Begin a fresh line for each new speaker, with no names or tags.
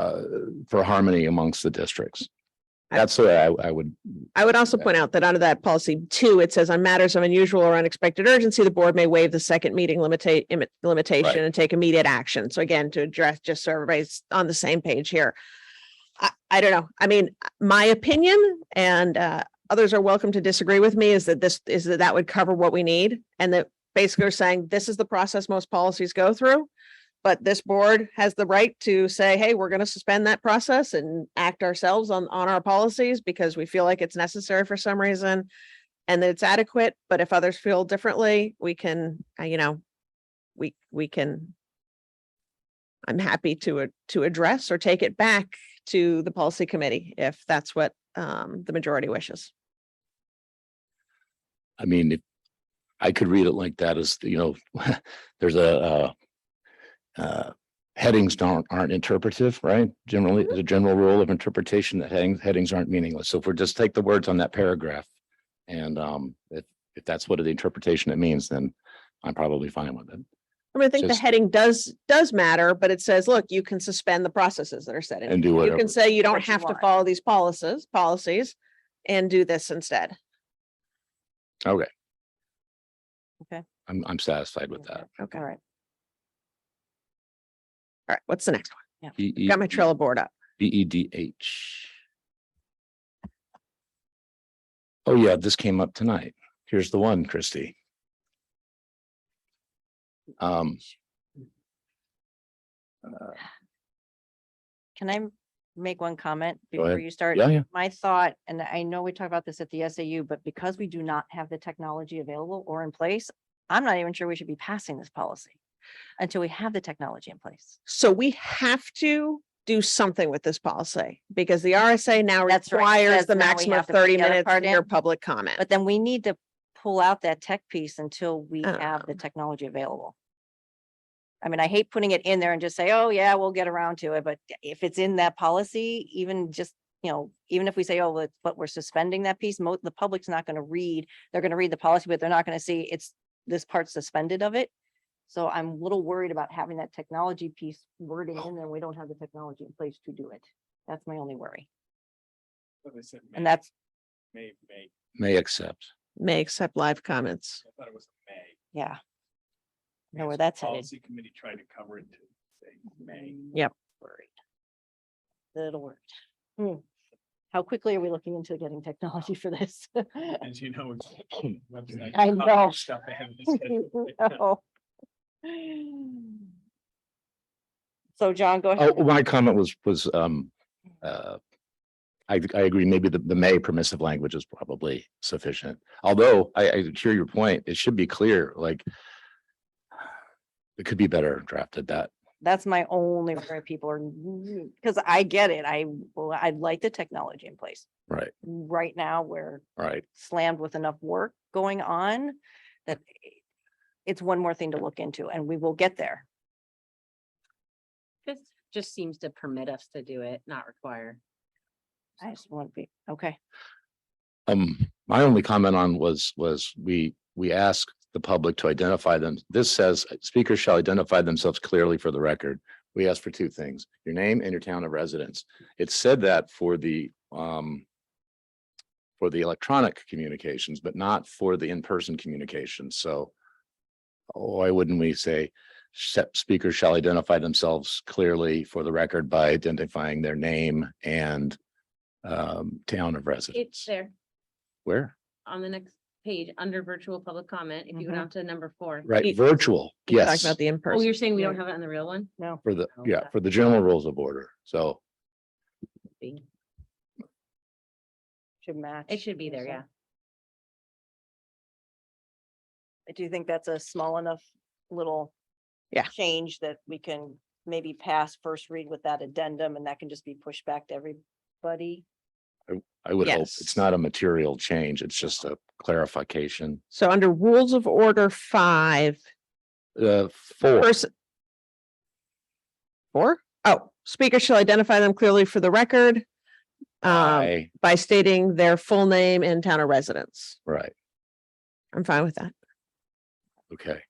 uh, for harmony amongst the districts.
I-
That's the way I, I would,
I would also point out that under that policy two, it says on matters of unusual or unexpected urgency, the board may waive the second meeting limita- imi-
Right.
limitation and take immediate action. So again, to address, just so everybody's on the same page here. I, I don't know. I mean, my opinion and uh, others are welcome to disagree with me is that this, is that that would cover what we need. And that basically we're saying this is the process most policies go through. But this board has the right to say, hey, we're going to suspend that process and act ourselves on, on our policies because we feel like it's necessary for some reason. And that it's adequate, but if others feel differently, we can, uh, you know, we, we can. I'm happy to, a- to address or take it back to the policy committee if that's what, um, the majority wishes.
I mean, if I could read it like that as, you know, there's a, uh, uh, headings don't, aren't interpretive, right? Generally,
Mm-hmm.
the general rule of interpretation that headings, headings aren't meaningless. So if we're just take the words on that paragraph and, um, if, if that's what the interpretation it means, then I'm probably fine with it.
I mean, I think the
Just-
heading does, does matter, but it says, look, you can suspend the processes that are set in.
And do
You
whatever.
can say you don't
What you
have to
want.
follow these policies, policies and do this instead.
I'm, I'm satisfied with that.
Okay.
All right.
All right, what's the next one?
E- E-
Got my Trello board up.
B E D H. Oh, yeah, this came up tonight. Here's the one, Christie. Um,
Can I m- make one comment
Go ahead.
before you start?
yeah, yeah,
My thought, and I know we talked about this at the SAU, but because we do not have the technology available or in place, I'm not even sure we should be passing this policy until we have the technology in place.
So we have to do something with this policy because the RSA now
That's right.
requires
Says
the
now we
maximum
have
of
to put
thirty
the other
minutes
part
in your
in.
public comment.
But then we need to pull out that tech piece until we have the technology available. I mean, I hate putting it in there and just say, oh, yeah, we'll get around to it, but if it's in that policy, even just, you know, even if we say, oh, but- but we're suspending that piece, mo the public's not gonna read, they're gonna read the policy, but they're not gonna see it's, this part suspended of it. So I'm a little worried about having that technology piece wording in there. We don't have the technology in place to do it. That's my only worry.
But they said
And
may-
that's,
May, May,
may accept.
May accept live comments.
I thought it was May.
yeah,
I
Know where
guess the
that's headed.
Policy committee tried to cover it to say May.
Yep.
Worried. Little worried. Hmm. How quickly are we looking into getting technology for this?
As you know. websites
I
cover
know.
Stuff they haven't scheduled.
No. So John, go ahead.
Oh, my comment was, was, um, uh, I, I agree, maybe the, the may permissive language is probably sufficient. Although I, I hear your point, it should be clear, like it could be better drafted that.
That's my only worry. People are, because I get it. I, well, I'd like the technology in place.
Right,
Right now, we're
right.
slammed with enough work going on that it's one more thing to look into and we will get there.
This just seems to permit us to do it, not require.
I just want to be, okay.
Um, my only comment on was, was we, we ask the public to identify them. This says speakers shall identify themselves clearly for the record. We ask for two things, your name and your town of residence. It said that for the, um, for the electronic communications, but not for the in-person communications. So why wouldn't we say "Sep- speakers shall identify themselves clearly for the record by identifying their name and um, town of
It's
residence?
there
Where?
on the next page, under virtual public comment, if you go
Mhm.
down to number four.
Right,
You-
virtual,
You're talking
yes,
About the
Oh,
in-person.
you're saying we don't
Yeah.
have it on the real one?
No.
for the,
Oh,
yeah,
okay.
for the general rules of order, so.
Be-
Should match.
It should be there, yeah.
I do think that's a small enough little.
Yeah.
Change that we can maybe pass first read with that addendum and that can just be pushed back to everybody.
I would hope,
Yes. Oh.
it's not a material change, it's just a clarification,
So under rules of order five,
uh, four,
Person. Four? Oh, speaker shall identify them clearly for the record. Um,
I,
by stating their Um, full name and town of residence.
right,
I'm fine with that.
okay.